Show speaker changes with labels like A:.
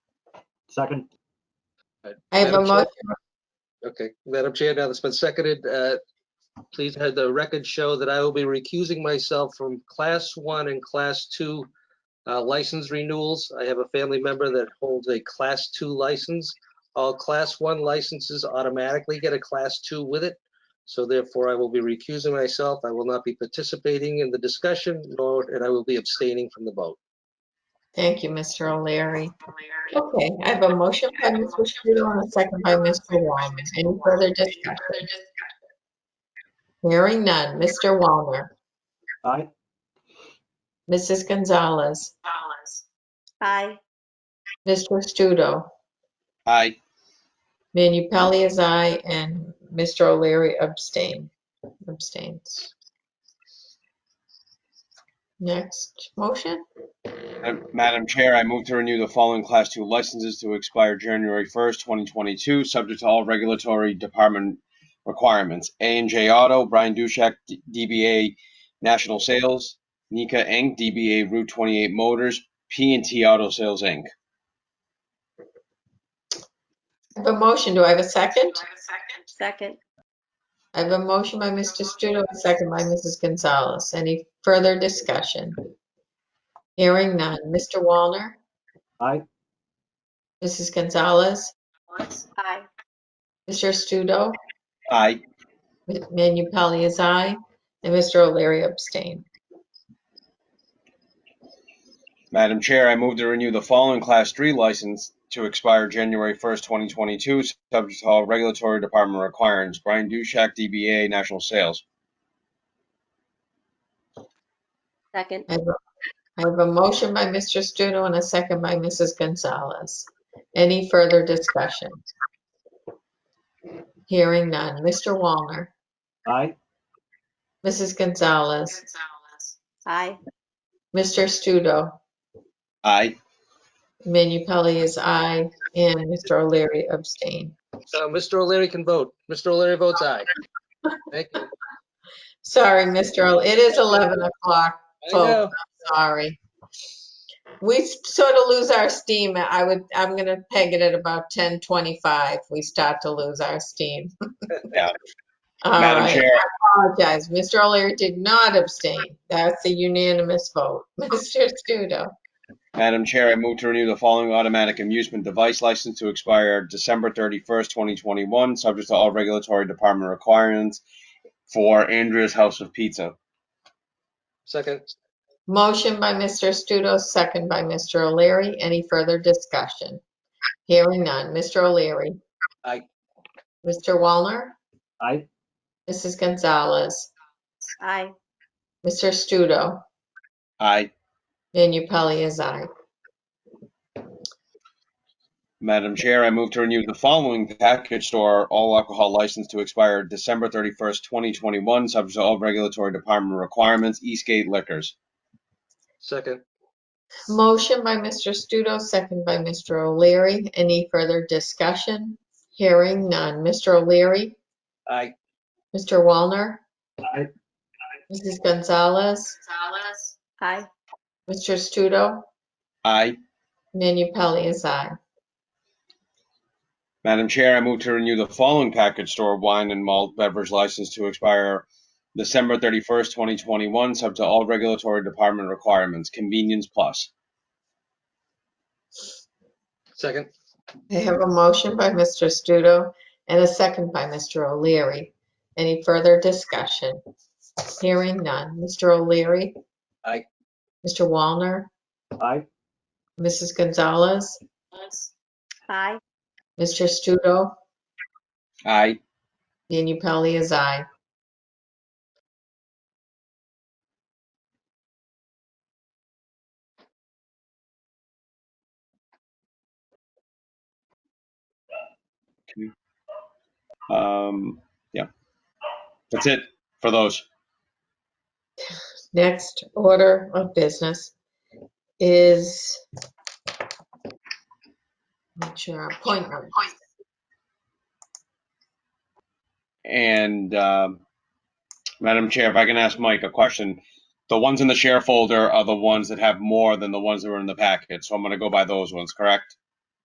A: Second,
B: I have a
C: Madam Chair?
B: motion,
C: Okay, Madam Chair, now that's been seconded, uh, please have the record show that I will be recusing myself from Class 1 and Class 2 uh, license renewals. I have a family member that holds a Class 2 license. All Class 1 licenses automatically get a Class 2 with it, so therefore I will be recusing myself. I will not be participating in the discussion, nor, and I will be abstaining from the vote.
B: thank you, Mr. O'Leary. Okay, I have a motion by Mr. Studo and a second by Mr. Wallner. Any further discussion? Hearing none. Mr. Wallner,
A: aye.
B: Mrs. Gonzalez,
D: Aye.
B: Mr. Studo,
E: Aye.
B: Manu Pelley is aye, and Mr. O'Leary abstain, abstains. Next motion,
E: Uh, Madam Chair, I move to renew the following Class 2 licenses to expire January 1st, 2022, subject to all regulatory department requirements. a and J Auto, Brian Dushak, D- DBA National Sales, Nika Inc., DBA Route 28 Motors, p and T Auto Sales, Inc.
B: I have a motion, do I have a second?
D: Second.
B: I have a motion by Mr. Studo, a second by Mrs. Gonzalez. Any further discussion? Hearing none. Mr. Walner?
A: Aye.
B: Mrs. Gonzalez?
D: Aye.
B: Mr. Studo?
E: Aye.
B: Manu Pelley is aye, and Mr. O'Leary abstained.
E: Madam Chair, I move to renew the following Class 3 license to expire January 1st, 2022, subject to all regulatory department requirements. Brian Dushak, DBA National Sales.
D: Second.
B: I have a- I have a motion by Mr. Studo and a second by Mrs. Gonzalez. Any further discussion? Hearing none. Mr. Walner?
A: Aye,
B: Mrs. Gonzalez?
D: Aye.
B: Mr. Studo?
E: Aye.
B: Manu Pelley is aye, and Mr. O'Leary abstained.
C: Uh, Mr. O'Leary can vote. Mr. O'Leary votes aye. Thank you.
B: Sorry, Mr. O'Leary, it is 11 o'clock,
C: I know.
B: sorry. We sort of lose our steam, I would, I'm gonna peg it at about 10:25, we start to lose our steam.
E: Yeah.
B: All
E: Madam
B: right,
E: Chair,
B: apologize, Mr. O'Leary did not abstain, that's a unanimous vote. Mr. Studo,
E: Madam Chair, I move to renew the following automatic amusement device license to expire December 31st, 2021, subject to all regulatory department requirements for Andrea's House of Pizza.
C: Second,
B: motion by Mr. Studo, second by Mr. O'Leary, any further discussion? Hearing none, Mr. O'Leary.
C: Aye.
B: Mr. Wallner?
A: aye,
B: Mrs. Gonzalez,
D: Aye.
B: Mr. Studo,
E: Aye.
B: Manu Pelley is aye.
E: Madam Chair, I move to renew the following package store all alcohol license to expire December 31st, 2021, subject to all regulatory department requirements, Eastgate Liquors.
C: second,
B: Motion by Mr. Studo, second by Mr. O'Leary. Any further discussion? Hearing none. Mr. O'Leary,
C: aye.
B: Mr. Walner,
A: aye,
B: Mrs. Gonzalez,
D: Aye.
B: Mr. Studo,
E: Aye.
B: Manu Pelley is aye.
E: Madam Chair, I move to renew the following package store wine and malt beverage license to expire December 31st, 2021, subject to all regulatory department requirements, Convenience Plus.
C: Second,
B: I have a motion by Mr. Studo and a second by Mr. O'Leary. Any further discussion? Hearing none. Mr. O'Leary?
C: Aye.
B: Mr. Walner?
A: aye,
B: Mrs. Gonzalez,
D: Aye.
B: Mr. Studo,
E: Aye.
B: Manu Pelley is aye.
E: Um, yeah. That's it for those.
B: Next order of business is make sure appointment.
E: And um, Madam Chair, if I can ask Mike a question. The ones in the share folder are the ones that have more than the ones that were in the packet, so I'm going to go by those ones, correct?